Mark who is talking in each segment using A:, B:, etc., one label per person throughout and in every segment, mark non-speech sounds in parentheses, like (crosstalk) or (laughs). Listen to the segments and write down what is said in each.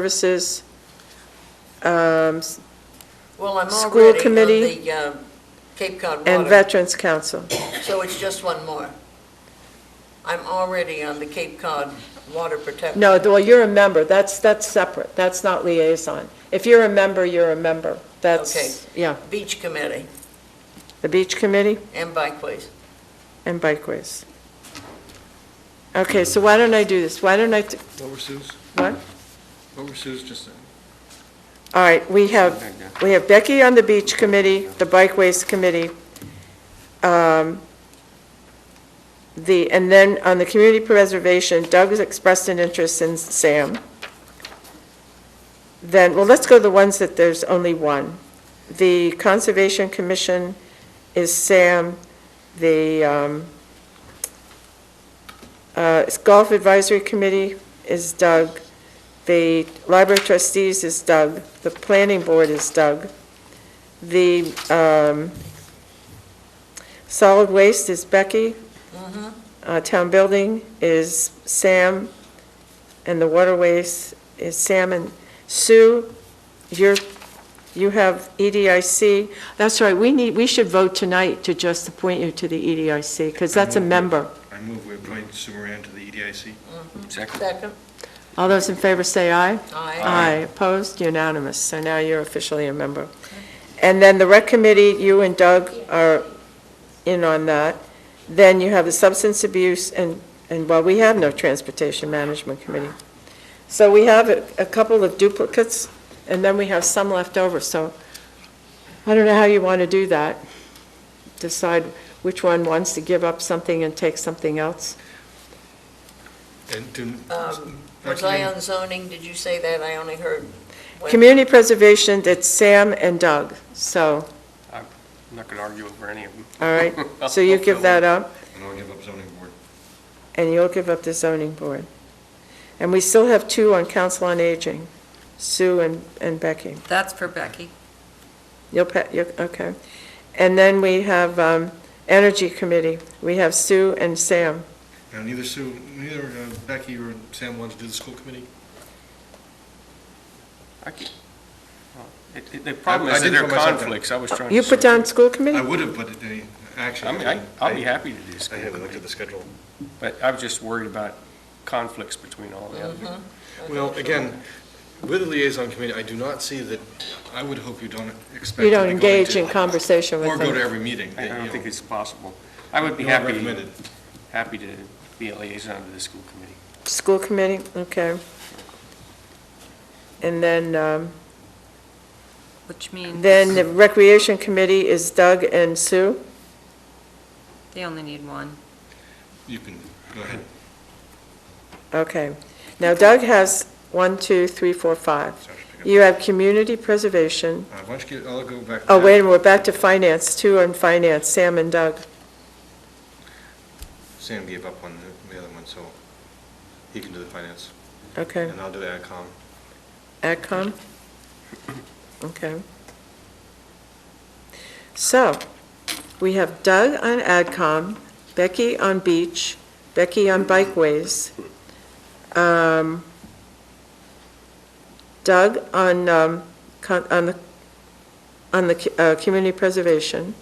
A: Services, um,
B: Well, I'm
A: School
B: already on
A: committee
B: the um, Cape Cod
A: and
B: Water,
A: Veterans Council.
B: so it's just one more. I'm already on the Cape Cod Water Protection.
A: No, well, you're a member, that's, that's separate, that's not liaison. If you're a member, you're a member, that's, yeah,
B: Beach Committee
A: the Beach Committee
B: and Bikeways.
A: and Bikeways. Okay, so why don't I do this, why don't I, t-
C: What were Sue's,
A: what?
C: what were Sue's just,
A: All right, we have, we have Becky on the Beach Committee, the Bikeways Committee, um, the, and then on the Community Preservation, Doug has expressed an interest in Sam. Then, well, let's go to the ones that there's only one. The Conservation Commission is Sam, the um, uh, Golf Advisory Committee is Doug, the Library of Trustees is Doug. The Planning Board is Doug. The um, Solid Waste is Becky. Uh, Town Building is Sam. And the Waterways is Sam and Sue. You're, you have E EDIC. That's right, we need, we should vote tonight to just appoint you to the E EDIC, because that's a member.
C: I move we appoint Sue Moran to the E EDIC.
D: Second.
B: Second,
A: All those in favor say aye.
B: aye.
A: Aye, opposed, unanimous, so now you're officially a member. And then the rec committee, you and Doug are in on that. Then you have the substance abuse, and, and, well, we have no transportation management committee. So we have a a couple of duplicates, and then we have some left over, so I don't know how you want to do that. Decide which one wants to give up something and take something else.
C: And do,
B: Um,
C: Dr.
B: Was I on zoning? Did you say that? I only heard. when-
A: Community preservation, it's Sam and Doug, so.
D: I'm not going to argue over any of them.
A: All
D: (laughs)
A: right, so you give that up,
C: and I'll give up zoning board.
A: and you'll give up the zoning board. And we still have two on Council on Aging, Sue and and Becky.
E: That's for Becky.
A: You'll, pa- you'll- okay. And then we have um, Energy Committee. We have Sue and Sam.
C: Now, neither Sue, neither uh, Becky or Sam wants to do the school committee?
D: I can- well, it- it- The problem is
C: I
D: that
C: did
D: there are
C: put myself down.
D: conflicts, I was trying to...
A: You put
D: sort
A: down school
C: I
A: committee?
C: would have, but the, actually.
D: I mean, I- I'll be happy to do
C: I
D: school
C: haven't looked at
D: committee,
C: the schedule.
D: but I was just worried about conflicts between all the other...
C: Well, again, with the liaison committee, I do not see that, I would hope you don't expect.
A: You
C: to
A: don't
C: be going
A: engage
C: to-
A: in conversation with
C: Or
A: them?
C: go to every meeting.
D: I I
C: you
D: don't
C: know.
D: think it's possible. I would be
C: Not
D: happy,
C: recommended.
D: happy to be a liaison to the school committee.
A: School committee, okay. And then, um,
E: Which means
A: then the Recreation Committee is Doug and Sue?
E: they only need one.
C: You can, go ahead.
A: Okay. Now Doug has one, two, three, four, five.
C: Sorry, I should pick
A: You have community preservation.
C: up. Uh, Why don't you, get- I'll go back. to
A: Oh,
C: that.
A: wait, a minute, we're back to finance, two on finance, Sam and Doug.
C: Sam gave up on the- the other one, so he can do the finance,
A: Okay.
C: and I'll do the AdCom.
A: AdCom? Okay. So, we have Doug on AdCom, Becky on Beach, Becky on Bikeways, um, Doug on, um, con- on the, on the c- uh, Community Preservation.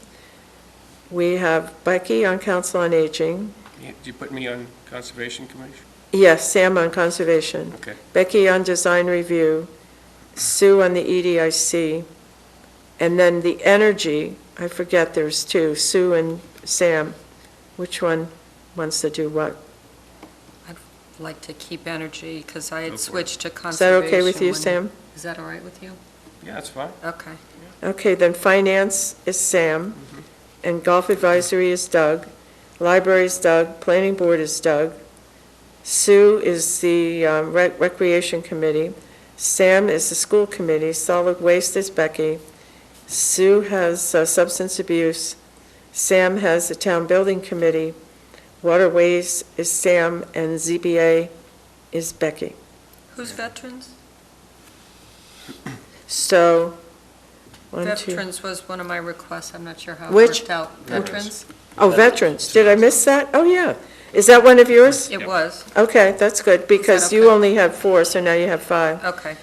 A: We have Becky on Council on Aging.
D: You- Did you put me on Conservation Commission?
A: Yes, Sam on Conservation.
D: Okay.
A: Becky on design review, Sue on the E EDIC, and then the energy, I forget, there's two, Sue and Sam. Which one wants to do what?
E: I'd like to keep energy because I
C: Go for
E: had
C: it.
E: switched to
A: Is
E: conservation.
A: that okay with you,
E: when-
A: Sam?
E: Is that all right with you?
D: Yeah, that's fine.
E: Okay.
A: Okay, then finance is Sam, and golf advisory is Doug, library is Doug, planning board is Doug, Sue is the uh, rec- recreation committee, Sam is the school committee, solid waste is Becky, Sue has uh, substance abuse, Sam has the town building committee, waterways is Sam, and ZBA is Becky.
E: Who's veterans?
A: So, one, two.
E: Veterans was one of my requests. I'm not sure how it
A: Which?
E: worked out.
C: Veterans.
E: Veterans?
A: Oh, veterans, did I miss that? Oh, yeah. Is that one of yours?
E: It
D: Yep.
E: was,
A: Okay, that's good, because you
E: okay?
A: only had four, so now you have five.
E: okay.